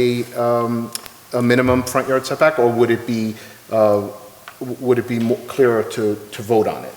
a, um, a minimum front yard setback, or would it be, uh, w- would it be mo- clearer to, to vote on it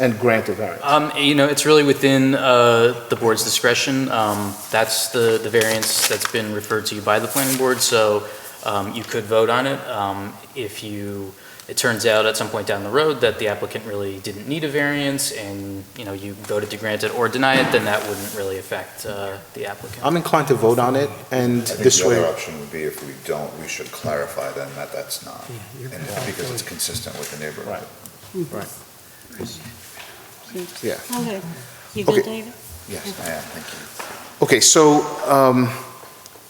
and grant a variance? Um, you know, it's really within, uh, the board's discretion. Um, that's the, the variance that's been referred to you by the planning board, so, um, you could vote on it. Um, if you, it turns out at some point down the road that the applicant really didn't need a variance and, you know, you voted to grant it or deny it, then that wouldn't really affect, uh, the applicant. I'm inclined to vote on it, and I think this the other way, option would be if we don't, we should clarify then that that's not, and it's because it's consistent with the neighborhood. yeah. Okay. Okay. You good, David? Yes, I am, thank you. Okay, so um,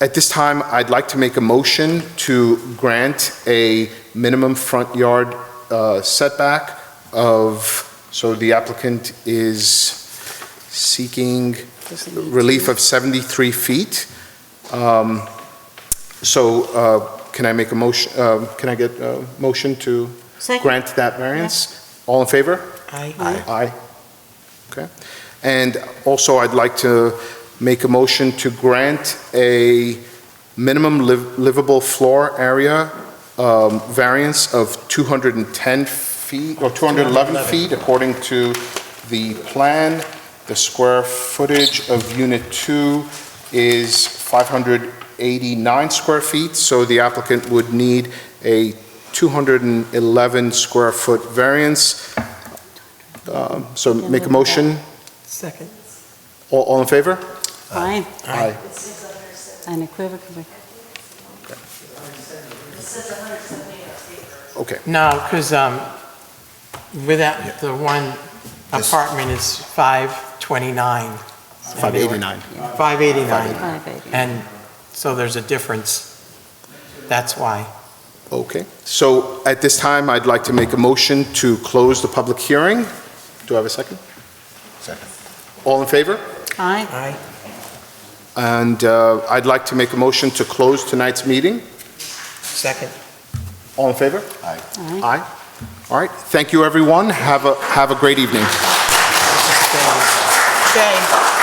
at this time, I'd like to make a motion to grant a minimum front yard uh, setback of, so the applicant is seeking Does it need to- relief of 73 feet. Um, So uh, can I make a motion, um, can I get a motion to Second? grant that variance? All in favor? Aye. Aye. Okay. And also, I'd like to make a motion to grant a minimum liv- livable floor area um, variance of 210 feet, or 211 feet, according to the plan. The square footage of Unit 2 is 589 square feet, so the applicant would need a 211 square foot variance. Um, So make a motion. Second. All, all in favor? Aye. Aye. Unequivocally. Okay, No, because without the one This- apartment is 529. 589. 589. Five eighty. And so there's a difference. That's why. Okay. So at this time, I'd like to make a motion to close the public hearing. Do I have a second? Second. All in favor? Aye. Aye. And uh, I'd like to make a motion to close tonight's meeting. Second. All in favor? Aye. Aye. All right. Thank you, everyone. Have a, have a great evening. Stay. Stay.